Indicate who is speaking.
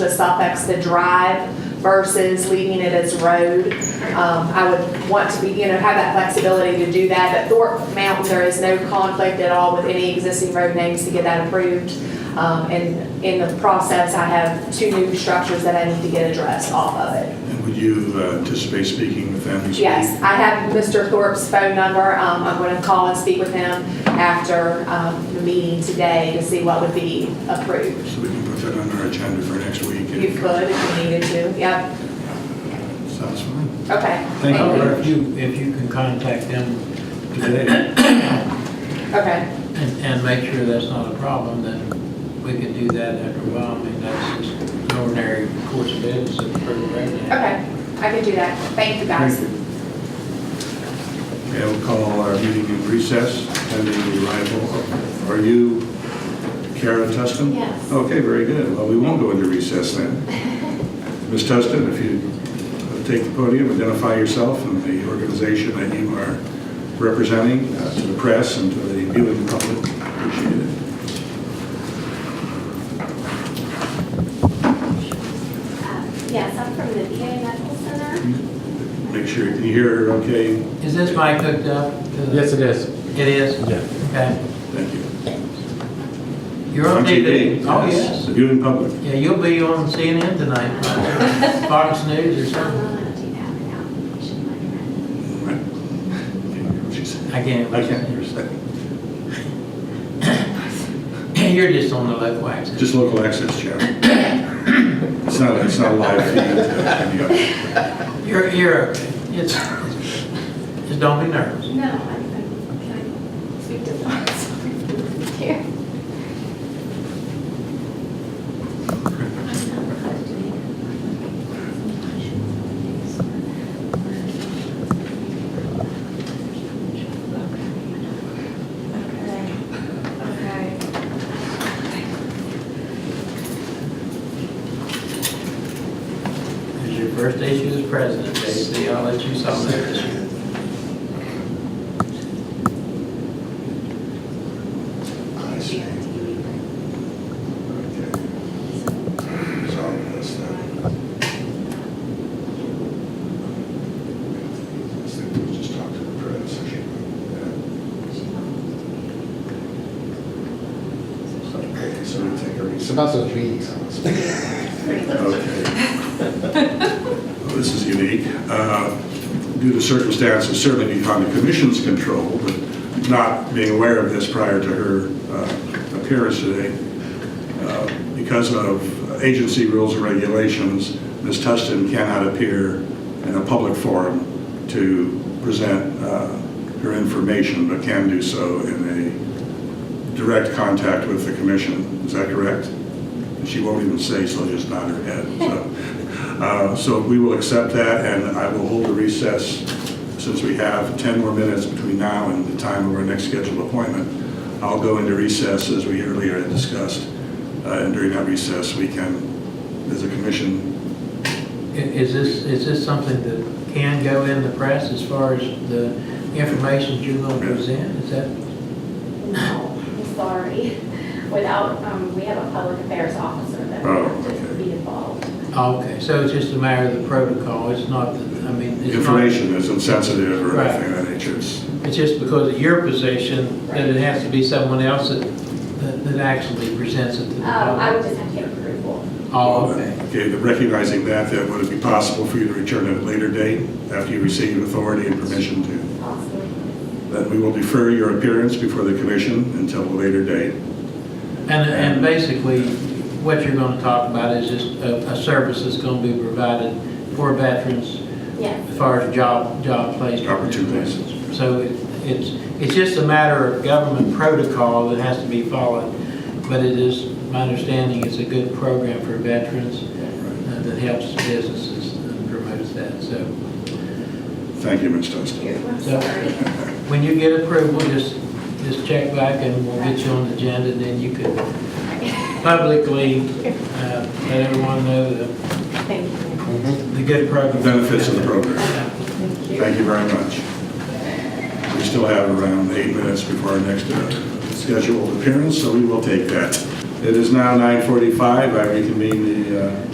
Speaker 1: the SOPEX, the drive versus leaving it as road. Um, I would want to be, you know, have that flexibility to do that, but Thorpe Mountain, there is no conflict at all with any existing road names to get that approved. Um, and in the process, I have two new structures that I need to get addressed off of it.
Speaker 2: And Would you uh, anticipate speaking with them? this week?
Speaker 1: Yes, I have Mr. Thorpe's phone number. Um, I'm going to call and speak with him after um, the meeting today to see what would be approved.
Speaker 2: So we can put that on our agenda for next week?
Speaker 1: You could if you needed to, yep,
Speaker 2: Sounds fine.
Speaker 1: okay.
Speaker 3: Thank
Speaker 1: Thank
Speaker 3: you,
Speaker 1: you.
Speaker 3: if you, if you can contact them today
Speaker 1: Okay,
Speaker 3: and, and make sure that's not a problem, then we can do that after a while. I mean, that's just an ordinary course of business that's pretty regular.
Speaker 1: okay, I can do that. Thank you, guys.
Speaker 2: Okay, we'll call our meeting in recess pending the arrival. of- Are you Kara Tustin?
Speaker 4: Yes.
Speaker 2: Okay, very good. Well, we won't go into recess then. Ms. Tustin, if you uh, take the podium, identify yourself and the organization that you are representing uh, to the press and to the viewing public. Appreciate it.
Speaker 4: Yes, I'm Uh, from the VA Medical Center. Um,
Speaker 2: Make sure you can hear, okay?
Speaker 3: Is this mic hooked up? to the-
Speaker 5: Yes, it is.
Speaker 3: It is?
Speaker 5: Yeah.
Speaker 3: Okay.
Speaker 2: Thank you.
Speaker 3: You're on TV? Oh,
Speaker 2: yes.
Speaker 3: yes.
Speaker 2: The viewing public.
Speaker 3: Yeah, you'll be on CNN tonight, right? Fox News or
Speaker 4: I'm
Speaker 3: something.
Speaker 4: not allowed to do that without permission, my friend.
Speaker 2: Right. Can't hear what she said.
Speaker 3: I can't.
Speaker 2: I can't hear a second.
Speaker 3: You're just on the left wax.
Speaker 2: Just local access channel. It's not, it's not live feed. uh,
Speaker 3: You're, you're, okay. it's, just don't be nervous.
Speaker 4: No, I, I, can I speak to the Here. I'm not allowed to do
Speaker 6: Okay.
Speaker 3: It's your first issue as president, J.C. I'll let you solve that issue.
Speaker 2: I see. Okay. So that's that. Just talk to the press. Okay, so we take a
Speaker 5: It's
Speaker 2: recess.
Speaker 5: about those meetings.
Speaker 2: Okay. Well, This is unique. Uh, Due to circumstances certainly beyond the commission's control, but not being aware of this prior to her uh, appearance today, uh, because of agency rules and regulations, Ms. Tustin cannot appear in a public forum to present uh, her information, but can do so in a direct contact with the commission. Is that correct? She won't even say, so just nod her head. So, uh, So we will accept that, and I will hold a recess, since we have 10 more minutes between now and the time of our next scheduled appointment. I'll go into recess, as we earlier had discussed, uh, and during that recess, we can, as a commission,
Speaker 3: I- Is this, is this something that can go in the press as far as the information you're going to present? Is that,
Speaker 4: No, I'm sorry. Without, um, we have a public affairs officer that
Speaker 2: Oh,
Speaker 4: would have to
Speaker 2: okay.
Speaker 4: be involved.
Speaker 3: okay, so it's just a matter of the protocol, it's not, the I mean, it's not,
Speaker 2: information is insensitive or
Speaker 3: Right.
Speaker 2: anything of that nature. It's-
Speaker 3: it's just because of your position that it has to be someone else that, that- that actually presents it to the
Speaker 4: Um, I would
Speaker 3: public?
Speaker 4: just have to get approval.
Speaker 3: Oh, okay.
Speaker 2: Uh, Okay, but recognizing that, then would it be possible for you to return at a later date, after you receive authority and permission to?
Speaker 4: Awesome.
Speaker 2: Then we will defer your appearance before the commission until a later date.
Speaker 3: And, and basically, what you're going to talk about is just a, a service that's going to be provided for veterans
Speaker 4: Yes.
Speaker 3: as far as job, job placement.
Speaker 2: Opportunities.
Speaker 3: So it- it's, it's just a matter of government protocol that has to be followed, but it is, my understanding, it's a good program for veterans uh, that helps businesses and promotes that. So
Speaker 2: Thank you, Ms. Tustin.
Speaker 4: I'm
Speaker 3: So-
Speaker 4: sorry.
Speaker 3: when you get approval, just, just check back and we'll get you on the agenda, and then you can publicly uh, let everyone know the
Speaker 4: Thank you.
Speaker 3: the good
Speaker 2: The
Speaker 3: program.
Speaker 2: benefits of the program. Thank you very much. We still have around eight minutes before our next uh, scheduled appearance, so we will take that. It is now 9:45. I reconvene the uh,